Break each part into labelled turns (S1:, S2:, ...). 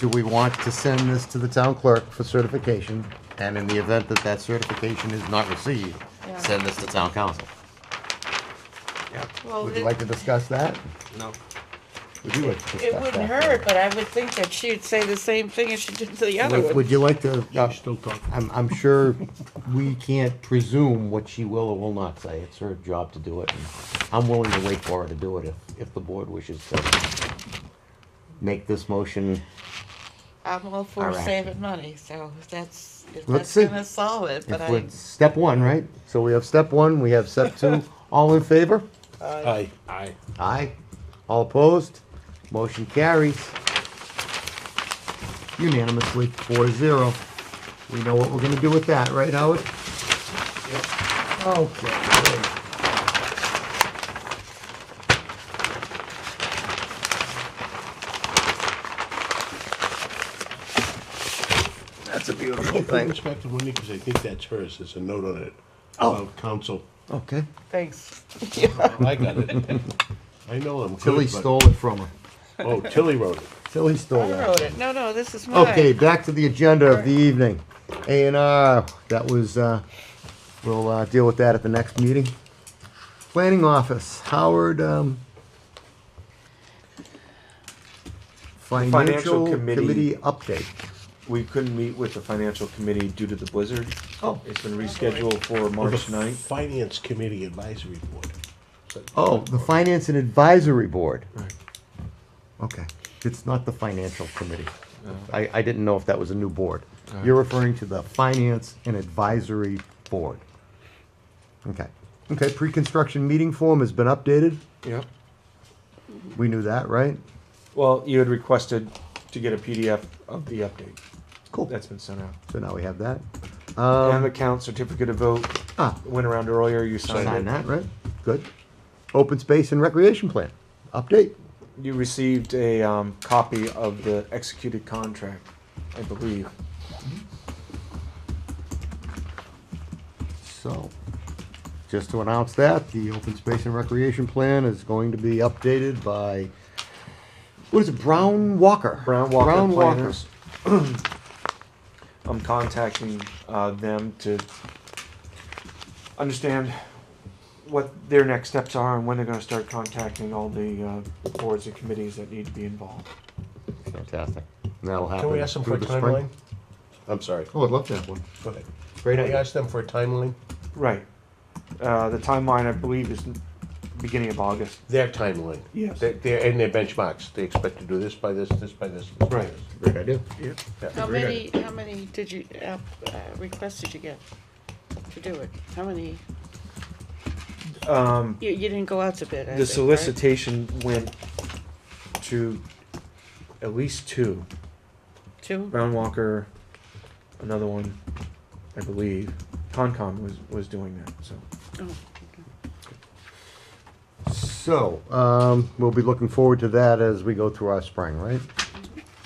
S1: do we want to send this to the town clerk for certification? And in the event that that certification is not received,
S2: Yeah.
S1: send this to town council?
S3: Yeah,
S2: Well,
S1: Would you
S2: it-
S1: like to discuss that?
S3: no.
S1: Would you like to discuss that?
S2: It wouldn't hurt, but I would think that she'd say the same thing as she did to the other
S1: Would-
S2: one.
S1: Would you like to, uh,
S4: She's still talking.
S1: I'm, I'm sure we can't presume what she will or will not say. It's her job to do it. and I'm willing to wait for her to do it if, if the board wishes to make this motion.
S2: I'm all for
S1: All right.
S2: saving money, so if that's,
S1: Let's
S2: if that's
S1: see.
S2: gonna solve it, but
S1: If
S2: I,
S1: we're, step one, right? So we have step one, we have step two. All in favor?
S4: Aye.
S3: I
S1: Aye. All opposed? Motion carries unanimously, four zero. We know what we're gonna do with that, right, Howard? Okay. great. That's a beautiful
S4: In
S1: thing.
S4: respect to Wendy, because I think that's hers, there's a note on it.
S1: Oh.
S4: Of council.
S1: Okay.
S2: thanks.
S4: I got it. I know I'm good,
S1: Tilly
S4: but-
S1: stole it from her.
S4: Oh, Tilly wrote it.
S1: Tilly
S2: I
S1: stole that.
S2: wrote it. No, no, this is mine.
S1: Okay, back to the agenda of the evening. A and R, that was, uh, we'll, uh, deal with that at the next meeting. Planning Office, Howard, um, Financial
S5: Committee.
S1: Committee update.
S5: We couldn't meet with the financial committee due to the blizzard.
S1: Oh.
S5: It's been rescheduled for March
S4: The
S5: ninth.
S4: Finance Committee Advisory Board.
S1: Oh, the Finance and Advisory Board. Okay, it's not the Financial Committee. I, I didn't know if that was a new board. You're referring to the Finance and Advisory Board. Okay, okay, pre-construction meeting form has been updated.
S5: Yep.
S1: We knew that, right?
S5: Well, you had requested to get a PDF of the update.
S1: Cool.
S5: That's been sent out.
S1: So now we have that. Um,
S5: And the count certificate of vote
S1: Ah,
S5: went around earlier, you
S1: sign
S5: signed it.
S1: that, right? Good. Open Space and Recreation Plan, update.
S5: You received a, um, copy of the executed contract, I believe.
S1: So, just to announce that, the open space and recreation plan is going to be updated by, what is it, Brown Walker?
S5: Brown Walker
S1: Brown
S5: Planners. I'm contacting uh, them to understand what their next steps are and when they're gonna start contacting all the uh, boards and committees that need to be involved.
S1: Fantastic. And that'll happen.
S4: Can we ask them for a
S1: through the spring.
S4: timeline? I'm sorry,
S1: Oh, I'd love to have one.
S4: go ahead.
S1: Great
S4: Can we
S1: idea.
S4: ask them for a timeline?
S5: Right. Uh, The timeline, I believe, is beginning of August.
S4: Their timeline.
S5: Yes.
S4: Their- Their, and their benchmarks. They expect to do this by this, this by this. this by
S5: Right.
S4: this.
S1: Great idea.
S2: How many, how many did you, uh, uh, requests did you get to do it? How many? Um. You, you didn't go out to bid, I
S5: The
S2: think, right?
S5: solicitation went to at least two.
S2: Two?
S5: Brown Walker, another one, I believe. Concom was, was doing that, so.
S2: Oh.
S1: So, um, we'll be looking forward to that as we go through our spring, right?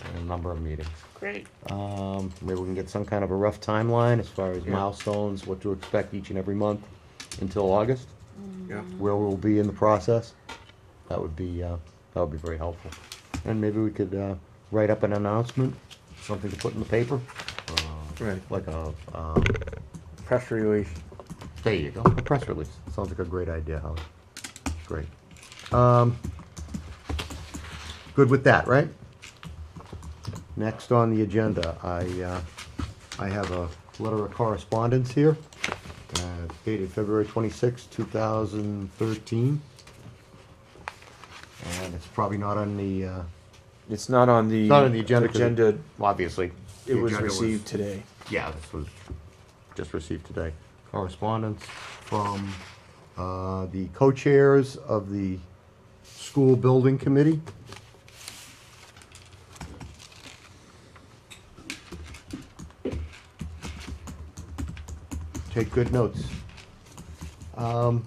S1: And A number of meetings.
S2: Great.
S1: Um, maybe we can get some kind of a rough timeline as far as
S5: Yeah.
S1: milestones, what to expect each and every month until August,
S5: Yeah.
S1: where we'll be in the process. That would be, uh, that would be very helpful. And maybe we could, uh, write up an announcement, something to put in the paper,
S5: Right.
S1: like a, um,
S5: Press release.
S1: there you go, a press release. Sounds like a great idea, Howard. Great. Um, good with that, right? Next on the agenda, I, uh, I have a letter of correspondence here, uh, dated February twenty-sixth, two thousand thirteen. And it's probably not on the, uh,
S5: It's not on the.
S1: not on the agenda. 'cause it-
S5: Agenda,
S1: well, Obviously.
S5: it
S1: the
S5: was
S1: agenda
S5: received today.
S1: yeah, this was just received today. Correspondence from uh, the co-chairs of the school building committee. Take good notes. Um,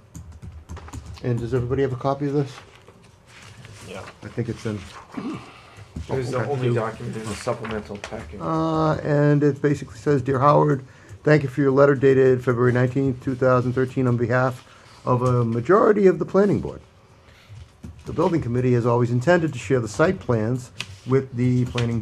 S1: And does everybody have a copy of this?
S4: Yeah.
S1: I think it's in.
S5: It was the
S1: Okay.
S5: only document in the supplemental packet.
S1: Uh, and it basically says, Dear Howard, thank you for your letter dated February 19th, 2013, on behalf of a majority of the planning board. The building committee has always intended to share the site plans with the planning